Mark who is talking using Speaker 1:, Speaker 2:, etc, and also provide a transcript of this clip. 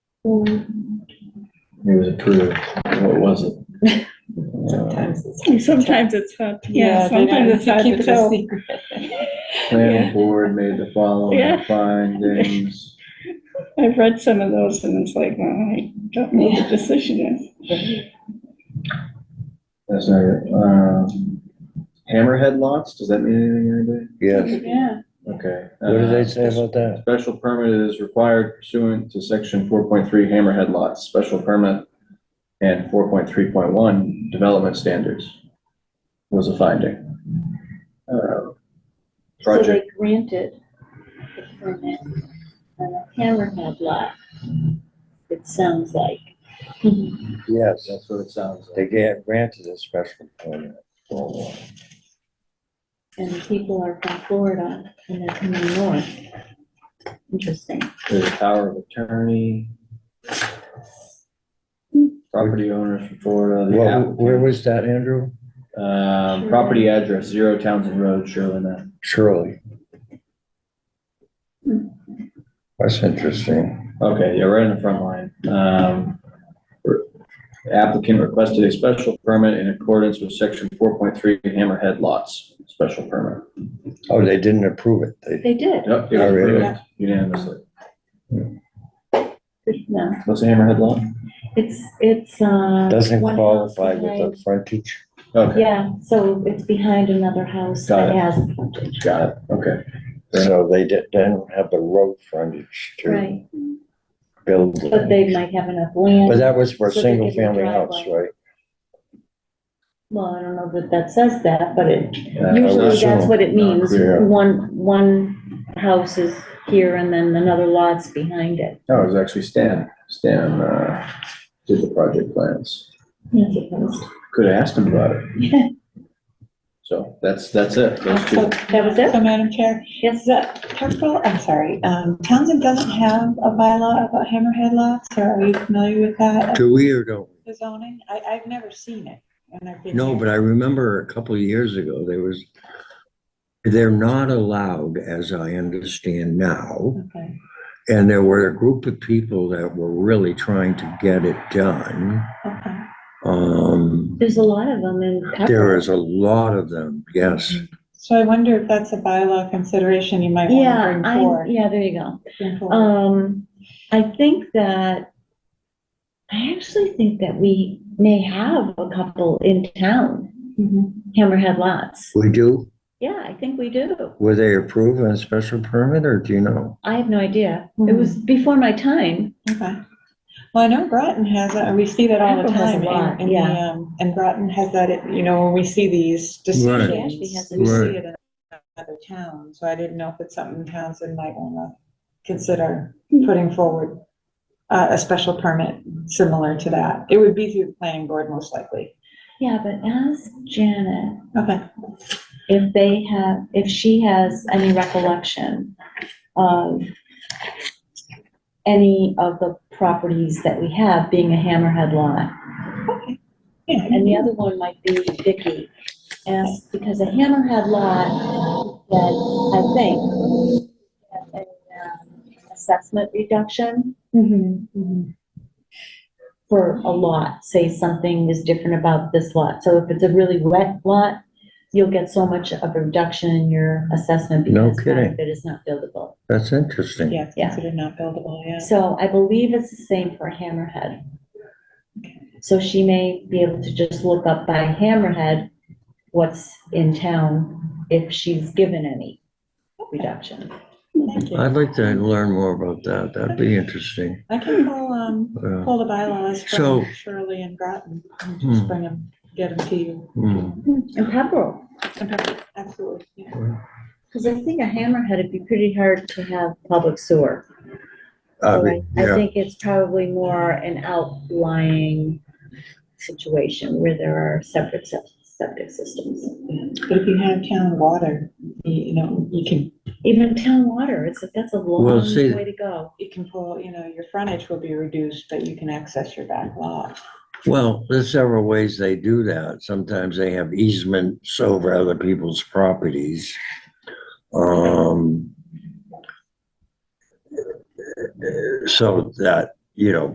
Speaker 1: It was approved. What was it? Uh,
Speaker 2: Sometimes it's-
Speaker 3: Sometimes it's hard, yeah,
Speaker 2: they
Speaker 3: sometimes
Speaker 2: don't
Speaker 3: it's hard
Speaker 2: keep
Speaker 3: to
Speaker 2: it a
Speaker 3: tell.
Speaker 2: secret.
Speaker 1: Planning board made the following
Speaker 3: Yeah.
Speaker 1: findings.
Speaker 3: I've read some of those and it's like, well, I don't know what the decision is.
Speaker 1: That's not it. Um, Hammerhead lots, does that mean anything,
Speaker 4: Yes.
Speaker 2: Yeah.
Speaker 1: anybody? Okay.
Speaker 4: What do
Speaker 1: Uh,
Speaker 4: they say about that?
Speaker 1: Special permit is required pursuant to section four point three Hammerhead Lots, special permit and four point three point one development standards was a finding. Uh,
Speaker 2: So
Speaker 1: Project,
Speaker 2: they granted the permit on a hammerhead lot, it sounds like.
Speaker 4: Yes,
Speaker 1: that's what it sounds
Speaker 4: they
Speaker 1: like.
Speaker 4: get granted a special permit.
Speaker 2: And the people are from Florida and they're coming north. Interesting.
Speaker 1: There's a power of attorney. Property owners from Florida, the
Speaker 4: What, where
Speaker 1: applicant,
Speaker 4: was that, Andrew?
Speaker 1: um, property address, zero Townsend Road, Sherwin, uh,
Speaker 4: Shirley. That's interesting.
Speaker 1: Okay, yeah, right in the front line. Um, Applicant requested a special permit in accordance with section four point three Hammerhead Lots, special permit.
Speaker 4: Oh, they didn't approve it. They,
Speaker 2: They did.
Speaker 1: Yep, it was
Speaker 4: Oh, really?
Speaker 1: approved unanimously.
Speaker 2: Good to know.
Speaker 1: What's a Hammerhead Lot?
Speaker 2: It's, it's, uh.
Speaker 4: doesn't
Speaker 2: one house
Speaker 4: qualify with
Speaker 2: behind-
Speaker 4: the frontage.
Speaker 1: Okay,
Speaker 2: Yeah, so it's behind another house
Speaker 1: Got
Speaker 2: that
Speaker 1: it.
Speaker 2: has a frontage.
Speaker 1: got it, okay.
Speaker 4: So they di- didn't have the road frontage to
Speaker 2: Right,
Speaker 4: build.
Speaker 2: but
Speaker 4: But
Speaker 2: they might have enough land.
Speaker 4: that was for a
Speaker 2: So they
Speaker 4: single
Speaker 2: could do a
Speaker 4: family house,
Speaker 2: driveway.
Speaker 4: right?
Speaker 2: Well, I don't know that that says that, but it,
Speaker 4: Uh,
Speaker 1: Yeah, I
Speaker 2: usually
Speaker 1: was-
Speaker 2: that's what it means.
Speaker 4: Yeah.
Speaker 2: One, one house is here and then another lot's behind it.
Speaker 1: No, Oh, it was actually Stan. Stan, uh, did the project plans.
Speaker 2: I suppose.
Speaker 1: Could have asked him about it. So that's, that's it, those two.
Speaker 5: So-
Speaker 2: That was it?
Speaker 5: So, Madam Chair,
Speaker 2: Yes.
Speaker 5: is that Parkville, I'm sorry, um, Townsend doesn't have a bylaw about hammerhead lots, or are you familiar with that, uh,
Speaker 4: Do we or don't?
Speaker 5: the zoning? I, I've never seen it. and I've been
Speaker 4: No,
Speaker 5: here.
Speaker 4: but I remember a couple of years ago, there was, they're not allowed, as I understand now.
Speaker 5: Okay.
Speaker 4: And there were a group of people that were really trying to get it done.
Speaker 5: Okay.
Speaker 4: Um,
Speaker 2: There's a lot of them in.
Speaker 4: there is a lot of them, yes.
Speaker 2: Mm-hmm.
Speaker 5: So I wonder if that's a bylaw consideration you might
Speaker 2: Yeah,
Speaker 5: want to bring
Speaker 2: I,
Speaker 5: forward.
Speaker 2: yeah, there you go.
Speaker 5: bring forward.
Speaker 2: Um, I think that, I actually think that we may have a couple in town,
Speaker 5: Mhm.
Speaker 2: Hammerhead Lots.
Speaker 4: We do,
Speaker 2: Yeah, I think we do.
Speaker 4: were they approved on a special permit or do you know?
Speaker 2: I have no idea. It was before my time.
Speaker 5: Okay. Well, I know Groton has, it, and we see that all the
Speaker 2: Groton has a
Speaker 5: time. in-
Speaker 2: lot,
Speaker 5: in the,
Speaker 2: yeah.
Speaker 5: um, And Groton has that, you know, when we see these decisions,
Speaker 4: Right.
Speaker 2: She actually has a-
Speaker 5: we see
Speaker 4: Right.
Speaker 5: it in other towns, so I didn't know if it's something Townsend might want to consider
Speaker 2: Hmm.
Speaker 5: putting forward, uh, a special permit similar to that. It would be through the planning board most likely.
Speaker 2: Yeah, but ask Janet
Speaker 5: Okay.
Speaker 2: if they have, if she has any recollection of any of the properties that we have being a hammerhead lot.
Speaker 5: Yeah.
Speaker 2: And the other one might be Vicky. Ask, because a hammerhead lot that I think has an um, assessment reduction
Speaker 5: Mhm, mhm.
Speaker 2: for a lot, say something is different about this lot. So if it's a really wet lot, you'll get so much of a reduction in your assessment
Speaker 4: No
Speaker 2: because part
Speaker 4: kidding.
Speaker 2: of it is not buildable.
Speaker 4: That's interesting.
Speaker 5: Yeah, it's
Speaker 2: Yeah.
Speaker 5: considered not buildable, yeah.
Speaker 2: So I believe it's the same for Hammerhead. So she may be able to just look up by Hammerhead what's in town if she's given any reduction.
Speaker 5: Thank you.
Speaker 4: I'd like to learn more about that. That'd be interesting.
Speaker 5: I can pull, um,
Speaker 4: Uh,
Speaker 5: pull the bylaws
Speaker 4: So-
Speaker 5: from Shirley and Groton, and just
Speaker 4: Hmm.
Speaker 5: bring them, get them to you.
Speaker 4: hmm.
Speaker 2: And Pepperell,
Speaker 5: Absolutely, yeah.
Speaker 2: because I think a Hammerhead, it'd be pretty hard to have public sewer.
Speaker 4: I
Speaker 2: So I
Speaker 4: mean,
Speaker 2: I
Speaker 4: yeah,
Speaker 2: think it's probably more an outlying situation where there are separate sep- septic systems.
Speaker 5: But if you have town water, you you know, you can,
Speaker 2: Even town water, it's, that's a long
Speaker 4: see-
Speaker 2: way to go.
Speaker 5: you can pull, you know, your frontage will be reduced, but you can access your back lot.
Speaker 4: well, there's several ways they do that. Sometimes they have easements over other people's properties. Um. So that, you know,